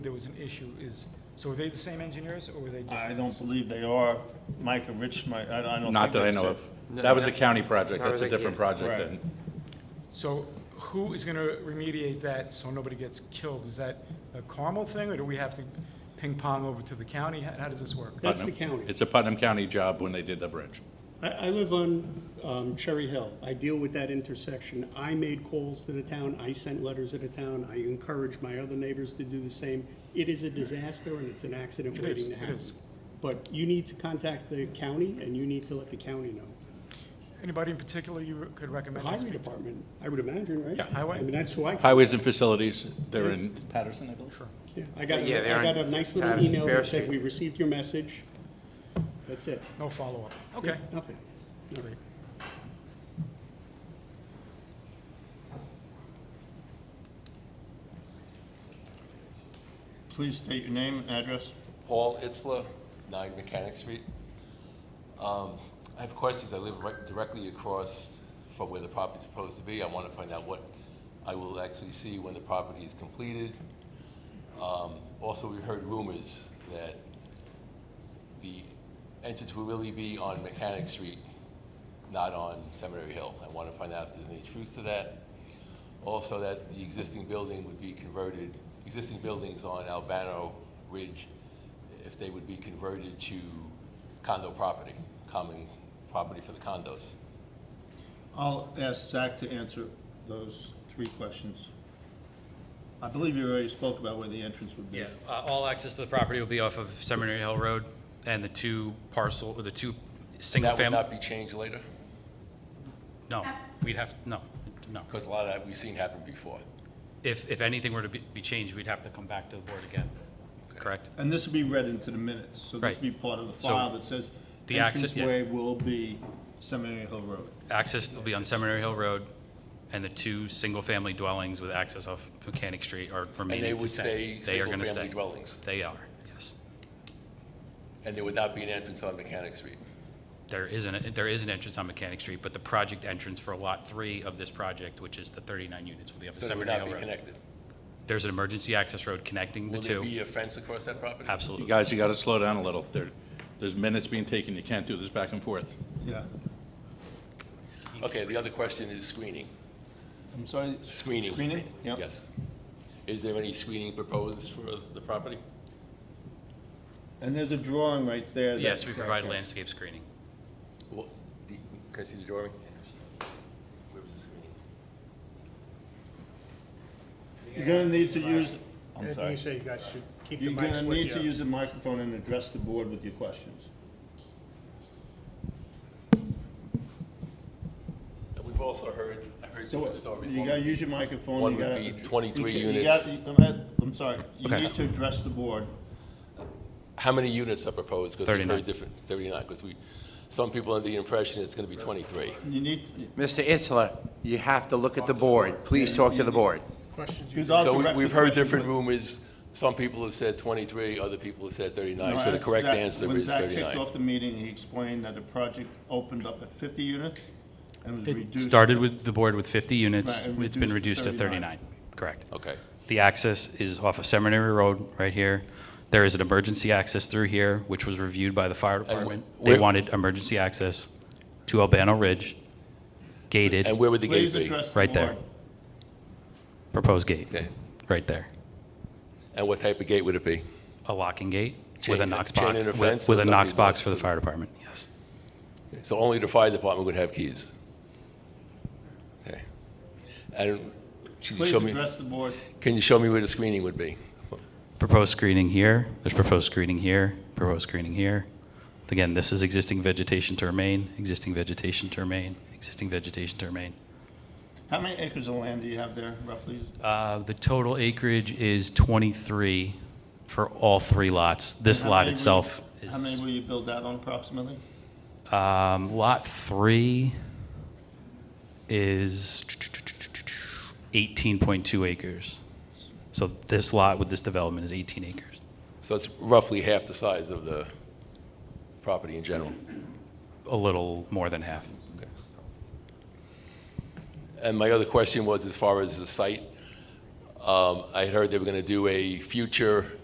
there was an issue is, so were they the same engineers or were they different? I don't believe they are. Mike and Rich, my, I I don't think. Not that I know it's- of. No, That was a no. county project, That that's was a a- different project Right. then. So who is going to remediate that so nobody gets killed? Is that a Carmel thing or do we have to ping pong over to the county? How how does this work? That's the Putnam. county. It's a Putnam County job when they did the bridge. I, I live on um, Cherry Hill. I deal with that intersection. I made calls to the town, I sent letters to the town, I encouraged my other neighbors to do the same. It is a disaster and it's an accident It is, waiting to it happen. is. But you need to contact the county and you need to let the county know. Anybody in particular you could The recommend? I highway speak to? department, I would imagine, right? Yeah. Highway. I mean, that's who I, Highways and facilities, they're in Patterson, I believe. yeah, I got, Yeah, they're a- I got a on nice little Patterson, email Fair that said, Street. we received your message. That's it. No follow-up. Okay. Nothing. Nothing. Please state your name and address. Paul Itzler, 9 Mechanic Street. Um, I have questions. I live right- directly across from where the property's supposed to be. I want to find out what I will actually see when the property is completed. Um, Also, we heard rumors that the entrance will really be on Mechanic Street, not on Seminary Hill. I want to find out if there's any truth to that. Also, that the existing building would be converted, existing buildings on Albano Ridge, if they would be converted to condo property, common property for the condos. I'll ask Zach to answer those three questions. I believe you already spoke about where the entrance would be. Yeah, uh, all access to the property will be off of Seminary Hill Road and the two parcel, or the two single That would family. not be changed later, No, we'd have, no, no. because a lot of that we've seen happen before. If, if anything were to be be changed, we'd have to come back to the board again, correct? And this will be read into the minutes, so this will be Right. part of the So, file that says the access- yeah. entranceway will be Seminary Hill Road. Access will be on Seminary Hill Road and the two single-family dwellings with access off Mechanic Street are And they remaining to would stay. stay are gonna single-family stay. dwellings, They are, yes. and there would not be an entrance on Mechanic Street. There is an, there is an entrance on Mechanic Street, but the project entrance for Lot 3 of this project, which is the 39 units, will be up to So they would Seminary not Hill be Road. connected. There's an emergency access road connecting the Will two. there be a fence across that property? You Absolutely. guys, you gotta slow down a little. There, there's minutes being taken, you can't do this back and forth. Yeah. Okay, the other question is screening. I'm sorry? Screening. Screening? Yeah. Yes. Is there any screening proposed for the property? And there's a drawing right there. that- Yes, we provide landscape screening. Well, the- Can I see the drawing? Where was the screening? You're gonna need to use, I'm Anything sorry. you say, you guys should keep the You're mics gonna with need you. to use the microphone and address the board with your questions. And we've also heard, I've heard So different stories. you gotta use your microphone. One you would gotta- be 23 you ca- you units. gotta- I'm at- I'm sorry, you Okay. need to address the board. How many units are proposed? 'Cause we've heard 39. different, 39, because we, some people under the impression it's going to be 23. You need, Mr. Itzler, you have to look at the board. Please talk to the board. Questions you because I'll So we- direct we've the heard question, different but- rumors. Some people have said 23, other people have said No, 39, so the as correct Zach- answer is When Zach kicked 39. off the meeting, he explained that the project opened up at 50 units and was It reduced. started with the board with 50 Right, units. and It's been reduced reduced to to 39. Correct. Okay. The access is off of Seminary Road, right here. There is an emergency access through here, which was reviewed by the fire department. They where- wanted emergency access to Albano Ridge, gated, And where would the gate Please be? address the right there. board. Proposed gate, Okay. right there. And what type of gate would it be? A locking gate with a Chain- Knox chain box, link fence with or with a Knox something box like for the that. fire department, yes. So only the fire department would have keys? Okay. And can you Please show me, address the board. can you show me where the screening would be? Proposed screening here, there's proposed screening here, proposed screening here. Again, this is existing vegetation to remain, existing vegetation to remain, existing vegetation to remain. How many acres of land do you have there roughly? Uh, The total acreage is 23 for all three lots. This How lot many will you- itself How many is, will you build out on approximately? um, Lot 3 is 18.2 acres. So this lot with this development is 18 acres. So it's roughly half the size of the property in general. A little more than half. And my other question was, as far as the site, Um, I had heard they were going to do a future